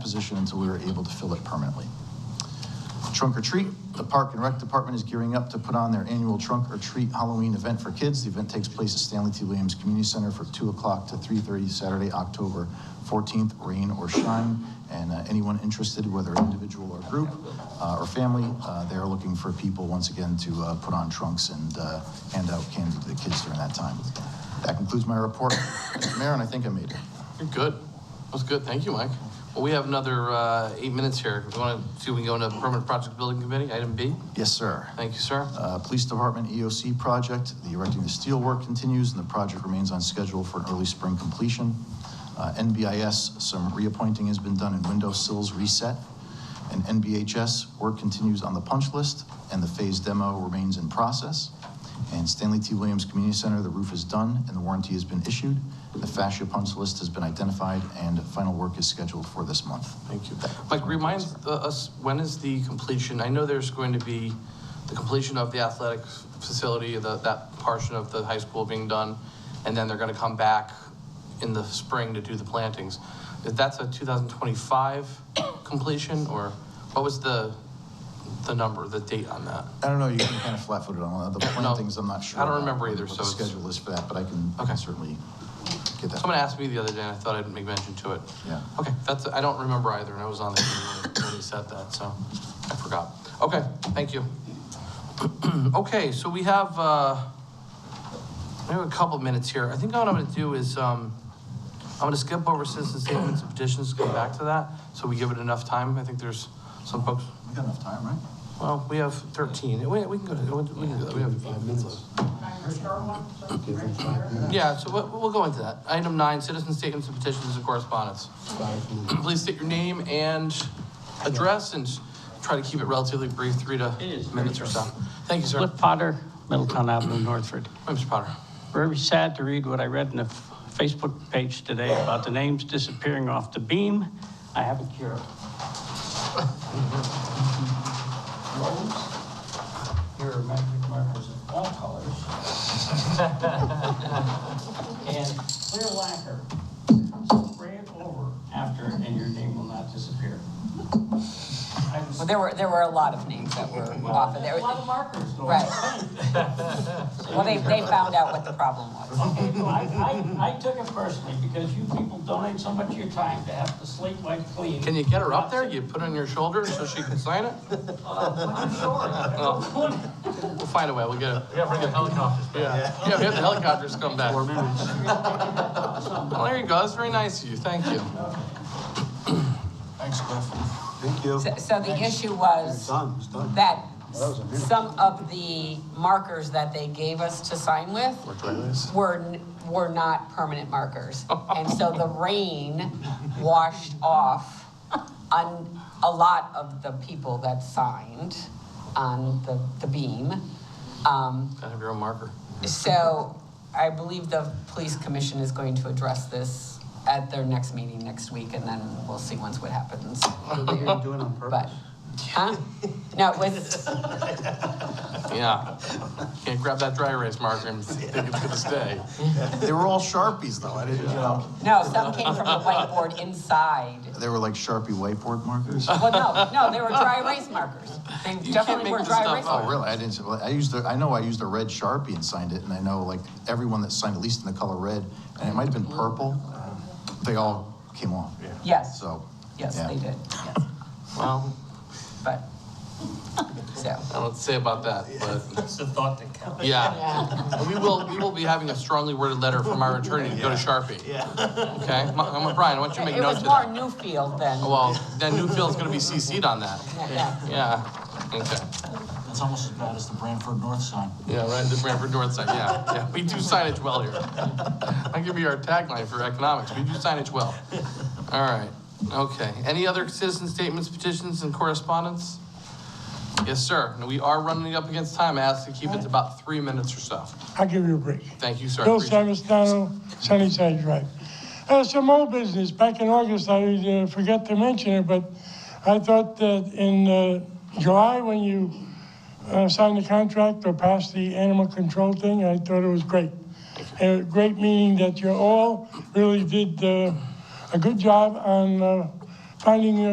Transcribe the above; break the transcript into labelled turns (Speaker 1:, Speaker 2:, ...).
Speaker 1: position until we were able to fill it permanently. Trunk or Treat, the Park and Rec Department is gearing up to put on their annual Trunk or Treat Halloween event for kids. The event takes place at Stanley T. Williams Community Center for 2 o'clock to 3:30 Saturday, October 14th, rain or shine. And uh, anyone interested, whether individual or group uh, or family, uh, they are looking for people, once again, to uh, put on trunks and uh, hand out candy to the kids during that time. That concludes my report, Mr. Mayor, and I think I made it.
Speaker 2: You're good. That was good. Thank you, Mike. Well, we have another uh, eight minutes here. If you want to see if we can go into Permanent Project Building Committee, item B.
Speaker 1: Yes, sir.
Speaker 2: Thank you, sir.
Speaker 1: Uh, Police Department EOC project, the erecting of the steel work continues, and the project remains on schedule for an early spring completion. Uh, NBIS, some reappointing has been done and window sills reset. And NBHS, work continues on the punch list, and the phase demo remains in process. And Stanley T. Williams Community Center, the roof is done and the warranty has been issued. The fascia punch list has been identified, and final work is scheduled for this month.
Speaker 2: Thank you. Mike, remind uh, us, when is the completion? I know there's going to be the completion of the athletic facility, the- that portion of the high school being done, and then they're going to come back in the spring to do the plantings. If That's a 2025 completion, or what was the, the number, the date on that?
Speaker 1: I don't know, you can kind of flat-footed on that. The plantings, I'm not sure.
Speaker 2: I don't
Speaker 1: about
Speaker 2: remember either,
Speaker 1: what
Speaker 2: so
Speaker 1: the
Speaker 2: it's-
Speaker 1: schedule is for that, but I can I can
Speaker 2: Okay.
Speaker 1: certainly get that.
Speaker 2: Someone asked me the other day, and I thought I'd make mention to it.
Speaker 1: Yeah.
Speaker 2: Okay, that's, I don't remember either, and I was on the committee when- when he said that, so I forgot. Okay, thank you. Okay, so we have, uh, we have a couple of minutes here. I think what I'm gonna do is, um, I'm gonna skip over citizen statements and petitions, come back to that, so we give it enough time. I think there's some folks,
Speaker 1: We got enough time, right?
Speaker 2: well, we have 13. We, we can go to, we can do that. We have five minutes left. Yeah, so we'll, we'll go into that. Item nine, citizen statements and petitions and correspondence. Please state your name and address and try to keep it relatively brief, three to
Speaker 3: It is very
Speaker 2: minutes or so. Thank you, sir.
Speaker 3: Cliff Potter, Middletown Avenue, Northford.
Speaker 2: Hi, Mr. Potter.
Speaker 3: Very sad to read what I read in the f- Facebook page today about the names disappearing off the beam. I have a cure. Rose, your magic markers of all colors. And clear lacquer. Spray it over after and your name will not disappear. I was-
Speaker 4: Well, there were, there were a lot of names that were off of there.
Speaker 3: A lot of markers. though.
Speaker 4: Right. Well, they, they found out what the problem was.
Speaker 3: Okay, well, I, I, I took it personally because you people donate so much of your time to have to sleep like clean.
Speaker 2: Can you get her up there? You put it on your shoulder so she can sign it?
Speaker 3: Oh,
Speaker 2: We'll find a way. We'll get it. We gotta bring the helicopters Yeah, yeah, we have the helicopters come back. Well, there you go. That's very nice of you. Thank you.
Speaker 1: Thanks, Cliff.
Speaker 5: Thank you.
Speaker 4: So- So the issue was
Speaker 5: Done, it's done.
Speaker 4: that
Speaker 5: That was a minute.
Speaker 4: some of the markers that they gave us to sign with were, n- were not permanent markers. And so the rain washed off on a lot of the people that signed on the, the beam. Um,
Speaker 2: Gotta have your own marker.
Speaker 4: So I believe the police commission is going to address this at their next meeting next week, and then we'll see once what happens.
Speaker 5: You're doing it on
Speaker 4: But,
Speaker 5: purpose.
Speaker 4: huh? No, it was,
Speaker 2: Yeah. Can't grab that dry erase marker and think it's gonna stay.
Speaker 1: They were all Sharpies, though. I didn't, you know,
Speaker 4: no, some came from the whiteboard inside.
Speaker 1: they were like Sharpie whiteboard markers. Oh,
Speaker 4: Well, no, no, they were dry erase markers. They
Speaker 2: can't
Speaker 4: definitely
Speaker 2: make
Speaker 4: were
Speaker 2: this
Speaker 4: dry
Speaker 2: stuff
Speaker 4: erase
Speaker 2: up.
Speaker 1: Oh,
Speaker 4: markers.
Speaker 1: really? I didn't, well, I used, a- I know I used a red Sharpie and signed it, and I know like everyone that signed, at least in the color red, and it might have been purple, they all came off.
Speaker 4: Yes,
Speaker 1: So.
Speaker 4: yes,
Speaker 1: yeah.
Speaker 4: they did, yes,
Speaker 2: Well,
Speaker 4: but, so.
Speaker 2: I don't know what to say about that, but
Speaker 6: It's the thought that counts.
Speaker 2: yeah.
Speaker 4: Yeah,
Speaker 2: And we will, we will be having a strongly worded letter from our attorney to go to Sharpie. Yeah. Okay, Ma- Ma- Brian, why don't you make
Speaker 4: it
Speaker 2: note
Speaker 4: was
Speaker 2: of
Speaker 4: more
Speaker 2: that?
Speaker 4: Newfield than,
Speaker 2: Well, then Newfield's gonna be CC'd on that.
Speaker 4: yeah,
Speaker 2: Yeah, okay.
Speaker 6: It's almost as bad as the Branford North sign.
Speaker 2: Yeah, right, the Branford North side, yeah, yeah, we do signage well here. That could be our tagline for economics, we do signage well. All right, okay, any other citizen statements, petitions, and correspondence? Yes, sir, and we are running up against time, I ask to keep it to about three minutes or so.
Speaker 7: I'll give you a break.
Speaker 2: Thank you, sir.
Speaker 7: Bill
Speaker 2: Appreciate it.
Speaker 7: Savastano, Sunnyside Drive. Uh, some old business, back in August, I uh, forgot to mention it, but I thought that in uh, July, when you uh, signed the contract or passed the animal control thing, I thought it was great. Uh, Great meaning that you all really did uh, a good job on uh, finding uh,